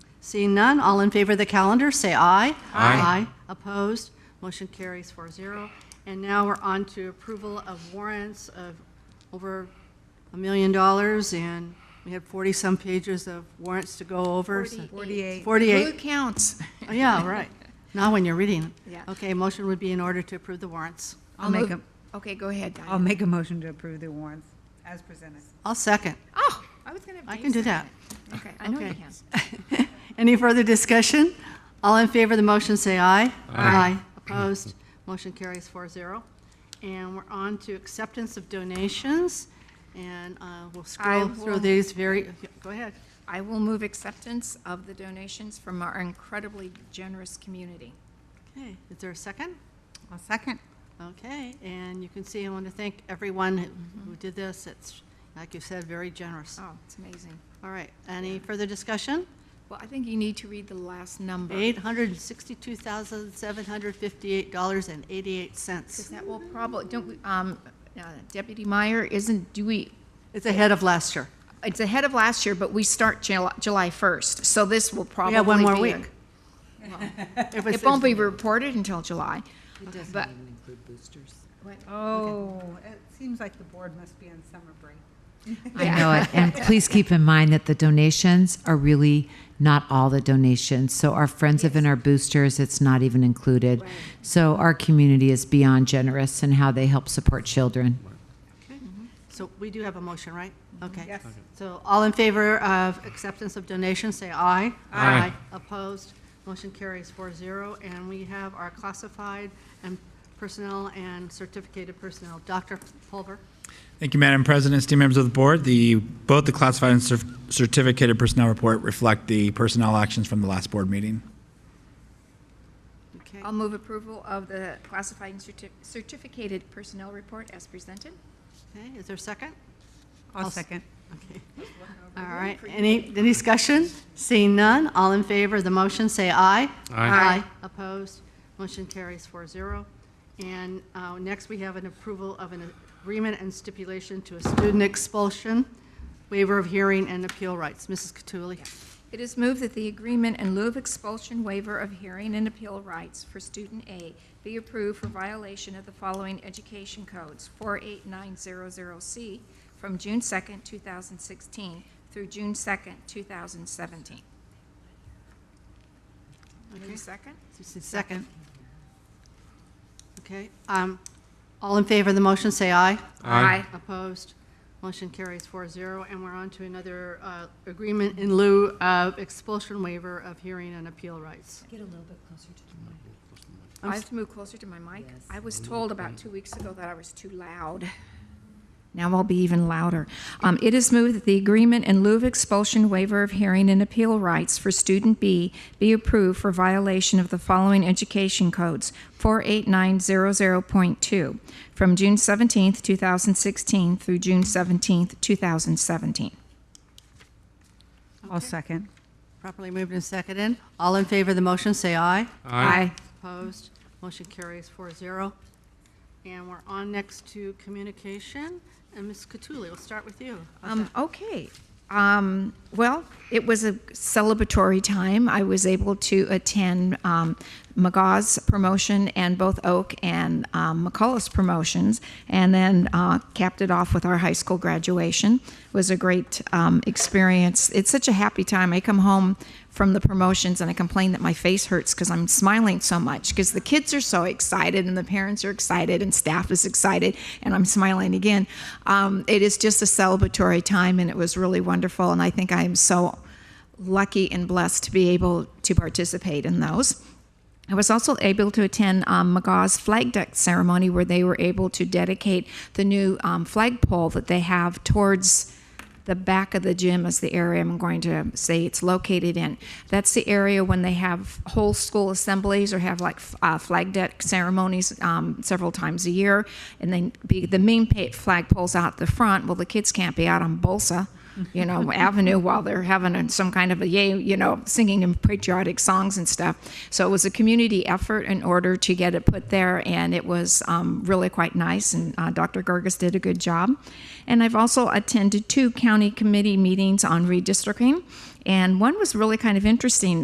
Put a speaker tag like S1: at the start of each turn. S1: Seeing none, all in favor of the calendar, say aye.
S2: Aye.
S1: Opposed? Motion carries 4-0. And now we're on to approval of warrants of over a million dollars, and we had 40-some pages of warrants to go over. so-
S3: Forty-eight.
S1: 48.
S3: Who counts?
S1: Oh, Yeah, right. Not when you're reading. it.
S3: Yeah.
S1: Okay, motion would be in order to approve the warrants.
S3: I'll
S4: make
S3: move- Okay, go ahead,
S4: I'll
S3: Diane.
S4: make a motion to approve the warrants as presented.
S1: I'll second.
S3: Oh, I was gonna. have
S1: I
S3: Dave
S1: can do that.
S3: second it. Okay, I know you
S1: Okay.
S3: can.
S1: Any further discussion? All in favor of the motion, say aye. Aye. Opposed? Motion carries 4-0. And we're on to acceptance of donations, and uh, we'll scroll
S3: will-
S1: through these very, go ahead.
S3: I will move acceptance of the donations from our incredibly generous community.
S1: Okay, is there a second?
S4: I'll second.
S1: Okay, and you can see, I want to thank everyone who- who did this. It's, like you said, very generous.
S3: Mm-hmm. Oh, it's amazing.
S1: All right, any further discussion?
S3: Well, I think you need to read the last number. Because
S1: $862,758.88.
S3: that will probably, don't, we- um, uh, Deputy Meyer, isn't, do we,
S1: It's ahead of last year.
S3: it's ahead of last year, but we start July, July first, so this will probably
S1: We
S3: be.
S1: have one more
S3: a-
S1: week. If it's-
S3: It won't be reported until July, but.
S4: Oh, it seems like the board must be on summer break.
S5: I know it. And please keep in mind that the donations are really not all the donations. So our friends of and our boosters, it's not even included. So our community is beyond generous in how they help support children.
S1: So we do have a motion, right? Okay.
S4: Yes.
S1: So all in favor of acceptance of donations, say aye.
S2: Aye.
S1: Opposed, motion carries 4-0. And we have our classified and personnel and certificated personnel. Dr. Pulver?
S2: Thank you, Madam President, esteemed members of the board. The, both the classified and cer- certificated personnel report reflect the personnel actions from the last board meeting.
S1: Okay.
S3: I'll move approval of the classified and certi- certificated personnel report as presented.
S1: Okay, is there a second?
S4: I'll
S1: s-
S4: second.
S1: Okay. All right, any, any discussion? Seeing none, all in favor of the motion, say aye.
S3: Aye.
S1: Opposed, motion carries 4-0. And uh, next, we have an approval of an agreement and stipulation to a student expulsion, waiver of hearing and appeal rights. Mrs. Cattouli?
S3: It is moved that the agreement in lieu of expulsion waiver of hearing and appeal rights for student A be approved for violation of the following education codes, 48900C, from June 2nd, 2016 through June 2nd, 2017. Need a second?
S1: Second. Okay, um, all in favor of the motion, say aye.
S3: Aye.
S1: Opposed? Motion carries 4-0, and we're on to another uh, agreement in lieu of expulsion waiver of hearing and appeal rights.
S6: Get a little bit closer to the mic.
S3: I have to move closer to my mic. I was told about two weeks ago that I was too loud. Now I'll be even louder. Um, It is moved that the agreement in lieu of expulsion waiver of hearing and appeal rights for student B be approved for violation of the following education codes, 48900.2, from June 17th, 2016 through June 17th, 2017.
S4: I'll second.
S1: Properly moved and seconded. All in favor of the motion, say aye.
S3: Aye.
S1: Opposed? Motion carries 4-0. And we're on next to communication, and Ms. Cattouli, we'll start with you.
S3: Um, okay. Um, well, it was a celebratory time. I was able to attend um, McGaw's promotion and both Oak and um, McCullough's promotions, and then uh, capped it off with our high school graduation. It was a great um, experience. It's such a happy time. I come home from the promotions and I complain that my face hurts because I'm smiling so much because the kids are so excited and the parents are excited and staff is excited and I'm smiling again. Um, it is just a celebratory time and it was really wonderful and I think I am so lucky and blessed to be able to participate in those. I was also able to attend um, McGaw's flag deck ceremony where they were able to dedicate the new um, flagpole that they have towards the back of the gym is the area I'm going to say it's located in. That's the area when they have whole school assemblies or have like f- uh, flag deck ceremonies um, several times a year. And then be, the main pa- flagpole's out the front. Well, the kids can't be out on Bolsa, you know, Avenue while they're having a- some kind of a yay, you know, singing and patriotic songs and stuff. So it was a community effort in order to get it put there, and it was um, really quite nice. And uh, Dr. Gerges did a good job. And I've also attended two county committee meetings on redistricting, And one was really kind of interesting.